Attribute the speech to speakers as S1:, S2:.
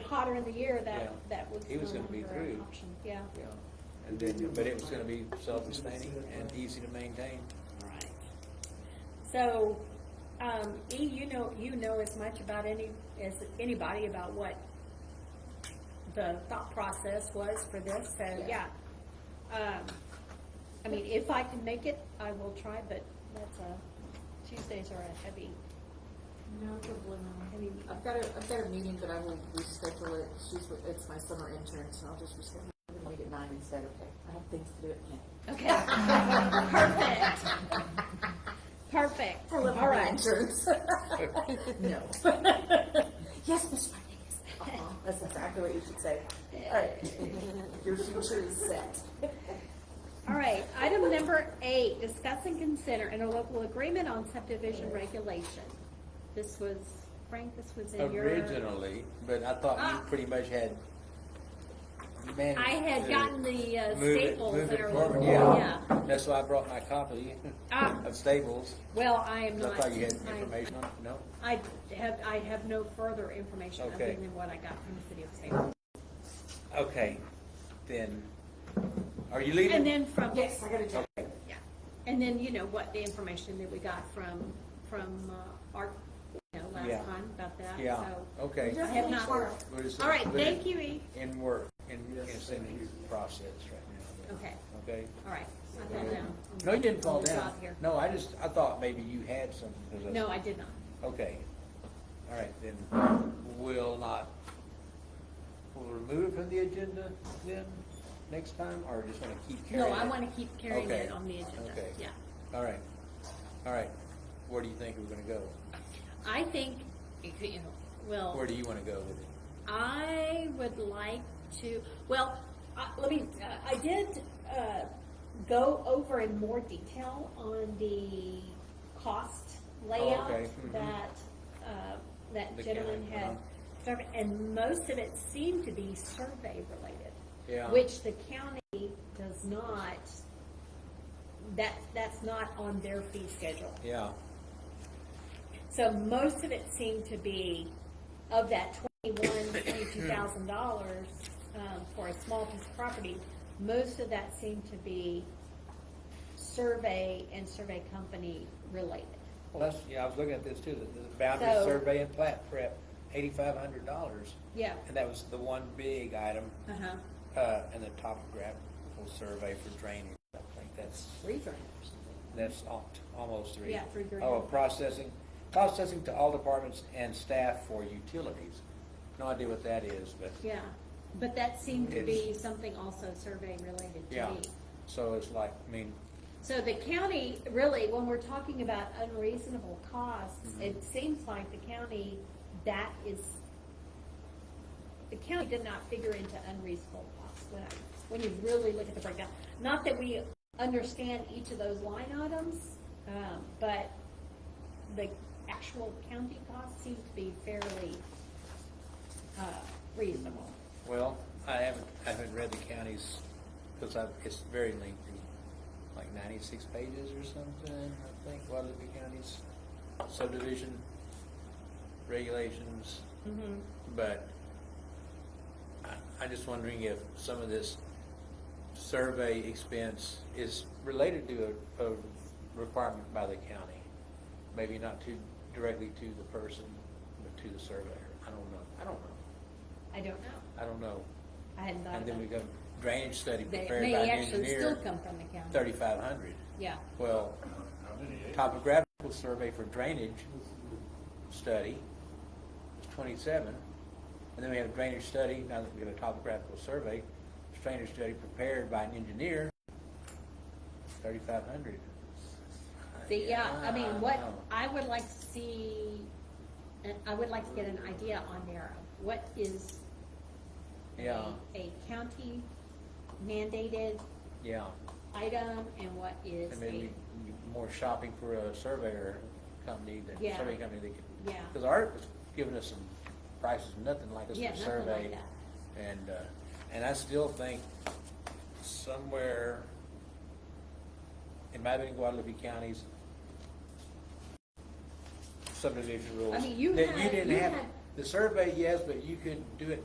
S1: hotter in the year,
S2: Yeah.
S1: that, that was.
S2: He was
S1: no
S2: gonna be
S1: longer an
S2: through.
S1: option. Yeah,
S2: Yeah, and then, but it was gonna be self-sustaining and easy to maintain.
S1: all right. So, um, E, you know, you know as much about any, as anybody about what the thought process was for this, so, yeah.
S3: Yeah.
S1: Um, I mean, if I can make it, I will try, but that's a, Tuesdays are a heavy,
S3: No, probably not. I mean, I've got a, I've got a meeting, but I will reschedule it. She's, with- it's my summer intern, so I'll just reschedule. I'm gonna make it nine instead, okay? I have things to do at ten.
S1: okay. Perfect, perfect,
S3: I love
S1: all
S3: my
S1: right.
S3: interns. No. Yes, Ms. Rodriguez. Uh-huh. That's exactly what you should say. All right. Your future is set.
S1: All right, item number eight, discuss and consider interlocal agreement on subdivision regulation. This was, Frank, this was in your.
S2: Originally, but I thought
S1: Ah.
S2: you pretty much had managed.
S1: I had
S2: to
S1: gotten the uh,
S2: move it-
S1: staples
S2: move
S1: that
S2: it
S1: are.
S2: forward. Yeah, that's why I brought my copy
S1: Ah.
S2: of Staples,
S1: Well, I am
S2: 'cause I
S1: not.
S2: thought you had
S1: I-
S2: information on, it. no?
S1: I have, I have no further information other
S2: Okay.
S1: than what I got from the city of Salem.
S2: Okay, then, are you
S1: And
S2: leaving?
S1: then from.
S3: Yes, I gotta do.
S1: Yeah, and then, you know, what the information that we got from, from uh, our, you know,
S2: Yeah.
S1: last time about that, so.
S2: Yeah, okay.
S1: I have not.
S2: We're just-
S1: All right,
S2: we're
S1: thank you, E.
S2: In work, in, in same process right now,
S1: Okay.
S2: okay?
S1: All right, I fell down.
S2: No, you didn't fall
S1: On the
S2: down.
S1: job here.
S2: No, I just, I thought maybe you had some. 'cause
S1: No, I did not.
S2: Okay, all right, then we'll not, we'll remove it from the agenda then, next time, or just wanna keep
S1: No,
S2: carrying it?
S1: I want to keep carrying
S2: Okay.
S1: it on the agenda,
S2: Okay.
S1: yeah.
S2: All right, all right, where do you think we're gonna go?
S1: I think, it could, you know, well,
S2: Where do you wanna go with it?
S1: I would like to, well, I- let me, uh, I did uh, go over in more detail on the cost layout
S2: okay, mhm.
S1: that, uh, that
S2: The
S1: gentleman
S2: county,
S1: had.
S2: uh-huh.
S1: surveyed, And most of it seemed to be survey related.
S2: Yeah.
S1: Which the county does not, that, that's not on their fee schedule.
S2: Yeah,
S1: So most of it seemed to be of that twenty-one, twenty-two thousand dollars, um, for a small piece of property, most of that seemed to be survey and survey company related.
S2: well, that's, yeah, I was looking at this too, the- the boundary
S1: So-
S2: survey and plat prep, eighty-five hundred dollars.
S1: Yeah.
S2: And that was the one big item,
S1: Uh-huh.
S2: uh, and the topographical survey for drainage, I think that's
S1: Three drainers.
S2: That's al- almost three.
S1: Yeah, three grand.
S2: Oh, processing, processing to all departments and staff for utilities. No idea what that is, but,
S1: Yeah, but that seemed to be
S2: It's-
S1: something also survey related to
S2: yeah.
S1: me.
S2: So it's like, I mean,
S1: So the county, really, when we're talking about unreasonable costs,
S2: Mm-hmm.
S1: it seems like the county, that is, the county did not figure into unreasonable costs when, I- when you really look at the breakdown. Not that we understand each of those line items, um, but the actual county costs seem to be fairly, uh, reasonable.
S2: well, I haven't, I haven't read the county's, because I've, it's very lengthy, like ninety-six pages or something, I think, Guadalupe County's subdivision regulations.
S1: Mm-hmm.
S2: But I, I'm just wondering if some of this survey expense is related to a, a requirement by the county. Maybe not to, directly to the person, but to the surveyor. I don't know. I don't know.
S1: I don't know.
S2: I don't know.
S1: I hadn't thought
S2: And
S1: about
S2: then we
S1: that.
S2: got drainage study
S1: They
S2: prepared
S1: may
S2: by an
S1: actually still
S2: engineer,
S1: come from the county.
S2: thirty-five hundred.
S1: Yeah.
S2: Well, topographical survey for drainage study is twenty-seven. And then we have a drainage study, now that we have a topographical survey, drainage study prepared by an engineer, thirty-five hundred.
S1: See, yeah, I mean, what, I would like to see, and I would like to get an idea on there, of what is a-
S2: Yeah,
S1: a county mandated
S2: yeah.
S1: item and what is
S2: And
S1: a,
S2: maybe more shopping for a surveyor company, than
S1: Yeah.
S2: survey company that could.
S1: Yeah.
S2: Because Art was giving us some prices, nothing like us
S1: Yeah,
S2: for
S1: nothing
S2: survey.
S1: like that.
S2: And, uh, and I still think somewhere, it might have been Guadalupe County's subdivision rules.
S1: mean, you
S2: that
S1: had-
S2: didn't
S1: you
S2: have-
S1: had-
S2: The survey, yes, but you could do it